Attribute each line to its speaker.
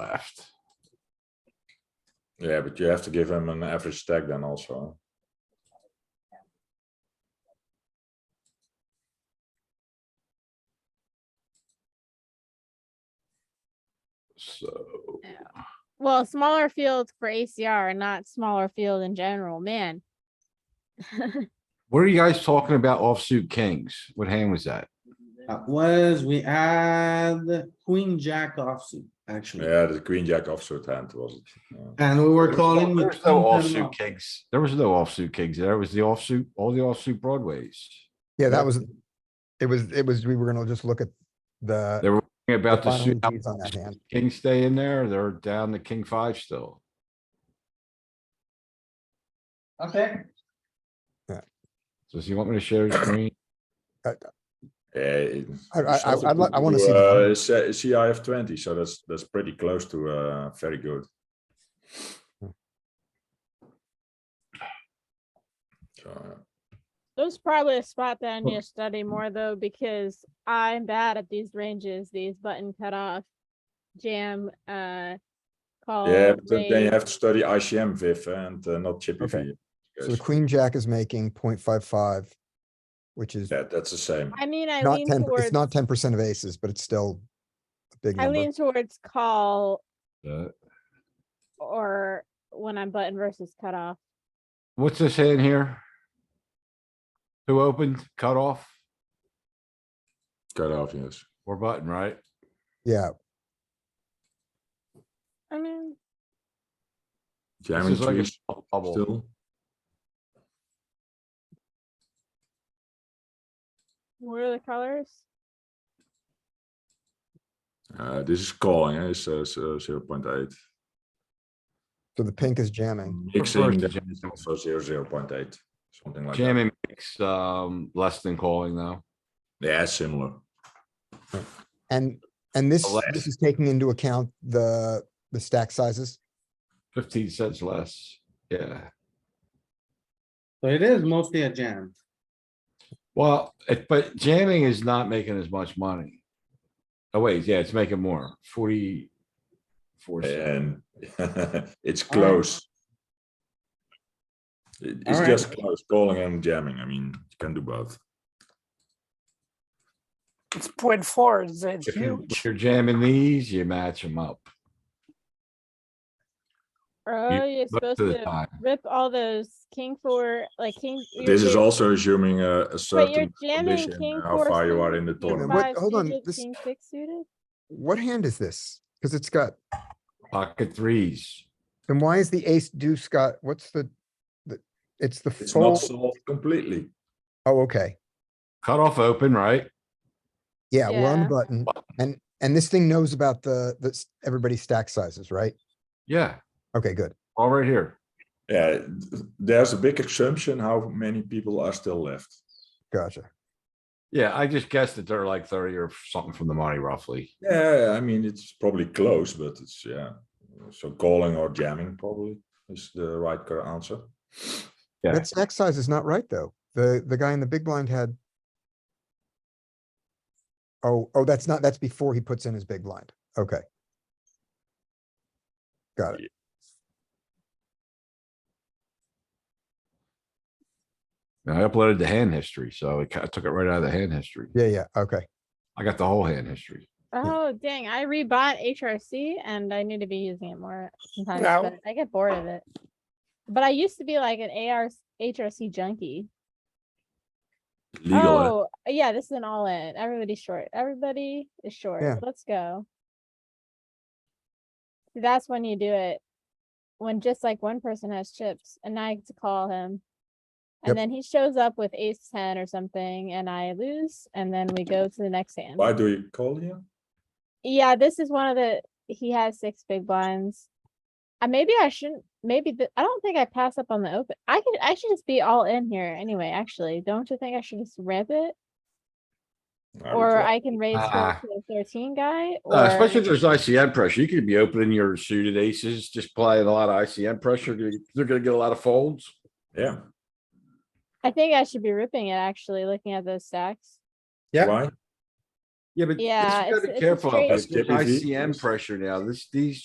Speaker 1: left.
Speaker 2: Yeah, but you have to give him an average stack then also.
Speaker 1: So,
Speaker 3: Well, smaller fields for ACR, not smaller field in general, man.
Speaker 4: What are you guys talking about offsuit kings? What hand was that?
Speaker 5: That was, we had queen jack offsuit, actually,
Speaker 2: Yeah, the queen jack offsuit hand was it. yeah.
Speaker 5: and we were
Speaker 4: There's no
Speaker 5: calling. with
Speaker 4: there's no
Speaker 5: queen ten
Speaker 4: offsuit
Speaker 5: off.
Speaker 4: kings. There was no offsuit kings. There was the offsuit, all the offsuit broadways.
Speaker 6: Yeah,
Speaker 4: Yeah.
Speaker 6: that was, it was, it was, we were gonna just look at
Speaker 4: They
Speaker 6: the.
Speaker 4: were thinking
Speaker 6: the
Speaker 4: about the
Speaker 6: final
Speaker 4: suit.
Speaker 6: ETs on that hand.
Speaker 4: King stay in there. They're down to king five still.
Speaker 5: Okay,
Speaker 4: So does he want me to share the screen?
Speaker 2: Yeah.
Speaker 6: I- I- I- I'd like- I wanna see
Speaker 2: Uh, C- CIF twenty, so that's, that's pretty close to, uh, very good. So, uh,
Speaker 3: There's probably a spot that I need
Speaker 4: Well-
Speaker 3: to
Speaker 2: Mm-hmm.
Speaker 3: study more though, because I'm bad at these ranges, these button cutoff, jam, uh, call.
Speaker 2: yeah, but then then you
Speaker 3: raise.
Speaker 2: have to study ICM Viv and uh, not Chippy
Speaker 6: Okay.
Speaker 2: V.
Speaker 6: So the
Speaker 2: because
Speaker 6: queen jack is making 0.55, which is
Speaker 2: That, that's the same.
Speaker 3: I mean, I
Speaker 6: not
Speaker 3: lean
Speaker 6: ten,
Speaker 3: towards,
Speaker 6: it's not ten percent of aces, but it's still a big
Speaker 3: I
Speaker 6: number.
Speaker 3: lean towards call
Speaker 4: Uh,
Speaker 3: or when I'm button versus cutoff.
Speaker 4: What's this hand here? Who opened, cut off
Speaker 2: Cut off, yes.
Speaker 4: or button, right?
Speaker 6: Yeah,
Speaker 3: I mean,
Speaker 4: This
Speaker 2: Jamming
Speaker 4: is like
Speaker 2: trees
Speaker 4: a bubble.
Speaker 2: still.
Speaker 3: what are the colors?
Speaker 2: Uh, this is calling, eh? It's, uh, zero point eight.
Speaker 6: so the pink is jamming.
Speaker 2: Mixing,
Speaker 4: Reverse
Speaker 2: then
Speaker 4: jam.
Speaker 2: it's also zero, zero point eight, something like that.
Speaker 4: Jamming makes, um, less than calling though.
Speaker 2: Yeah, similar.
Speaker 6: And, and this,
Speaker 4: Unless-
Speaker 6: this is taking into account the, the stack sizes.
Speaker 4: Fifteen cents less. Yeah.
Speaker 5: so it is mostly a jam.
Speaker 4: Well, it, but jamming is not making as much money. Oh wait, yeah, it's making more, forty. Four, cents.
Speaker 2: And it's close. It- It's
Speaker 5: Alright.
Speaker 2: just close, calling and jamming. I mean, you can do both.
Speaker 7: It's point four, it's it's
Speaker 4: if you-
Speaker 7: huge.
Speaker 4: if you're jamming these, you match them up
Speaker 3: Oh, you're
Speaker 4: most
Speaker 3: supposed
Speaker 4: of the
Speaker 3: to
Speaker 4: time.
Speaker 3: rip all those king four, like king. you're
Speaker 2: This is
Speaker 3: jamming-
Speaker 2: also assuming a a
Speaker 3: But you're
Speaker 2: certain
Speaker 3: jamming
Speaker 2: condition,
Speaker 3: king
Speaker 2: how
Speaker 3: four
Speaker 2: far you are
Speaker 3: suited,
Speaker 2: in the
Speaker 3: king
Speaker 2: tournament.
Speaker 6: What-
Speaker 3: five
Speaker 6: hold on,
Speaker 3: suited,
Speaker 6: this-
Speaker 3: King six suited?
Speaker 6: What hand is this? Cause it's got,
Speaker 4: Pocket threes.
Speaker 6: then why is the ace deuce got, what's the, the, it's the
Speaker 2: It's not
Speaker 6: fold?
Speaker 2: solved completely.
Speaker 6: Oh, okay.
Speaker 4: Cut off open, right?
Speaker 6: Yeah, we're on the
Speaker 3: Yeah.
Speaker 6: button and, and this thing knows about the, that's everybody's stack sizes, right?
Speaker 4: Yeah,
Speaker 6: Okay, good.
Speaker 4: all right here.
Speaker 2: Yeah, th- there's a big assumption how many people are still left.
Speaker 6: Gotcha.
Speaker 4: Yeah, I just guessed that they're like thirty or something from the money roughly.
Speaker 2: Yeah, I mean, it's probably close, but it's, yeah. So calling or jamming probably is the right cor- answer.
Speaker 4: Yeah.
Speaker 6: That stack size is not right, though. The, the guy in the big blind had. Oh, oh, that's not, that's before he puts in his big blind. Okay. Got it.
Speaker 4: And I uploaded the hand history, so it kind of took it right out of the hand history.
Speaker 6: Yeah, yeah, okay.
Speaker 4: I got the whole hand history.
Speaker 3: Oh, dang, I rebought HRC and I need to be using it more sometimes,
Speaker 7: Yeah.
Speaker 3: but I get bored of it. But I used to be like an AR, HRC junkie.
Speaker 2: Legal, eh?
Speaker 3: Oh, yeah, this is an all in. Everybody's short. Everybody is short.
Speaker 6: Yeah.
Speaker 3: Let's go. See, That's when you do it. When just like one person has chips and I get to call him.
Speaker 6: Yep.
Speaker 3: And then he shows up with ace ten or something and I lose and then we go to the next hand.
Speaker 2: Why do you call here?
Speaker 3: Yeah, this is one of the, he has six big blinds. Uh, maybe I shouldn't, maybe, the- I don't think I pass up on the open. I could, I should just be all in here anyway, actually. Don't you think I should just rip it?
Speaker 2: I would
Speaker 3: Or
Speaker 2: like-
Speaker 3: I can raise
Speaker 4: Ah.
Speaker 3: her to the thirteen guy
Speaker 4: Uh, especially
Speaker 3: or,
Speaker 4: if there's ICM pressure, you could be opening your suited aces, just playing a lot of ICM pressure. They're- They're gonna get a lot of folds.
Speaker 2: Yeah,
Speaker 3: I think I should be ripping it actually, looking at those stacks.
Speaker 5: Yeah.
Speaker 2: why?
Speaker 4: Yeah, but.
Speaker 3: Yeah,
Speaker 4: You
Speaker 3: it's-
Speaker 4: gotta
Speaker 3: it's
Speaker 4: be
Speaker 3: a
Speaker 4: careful. out there.
Speaker 3: straight-
Speaker 2: That's
Speaker 4: There's
Speaker 2: JPV.
Speaker 4: ICM pressure now. This, these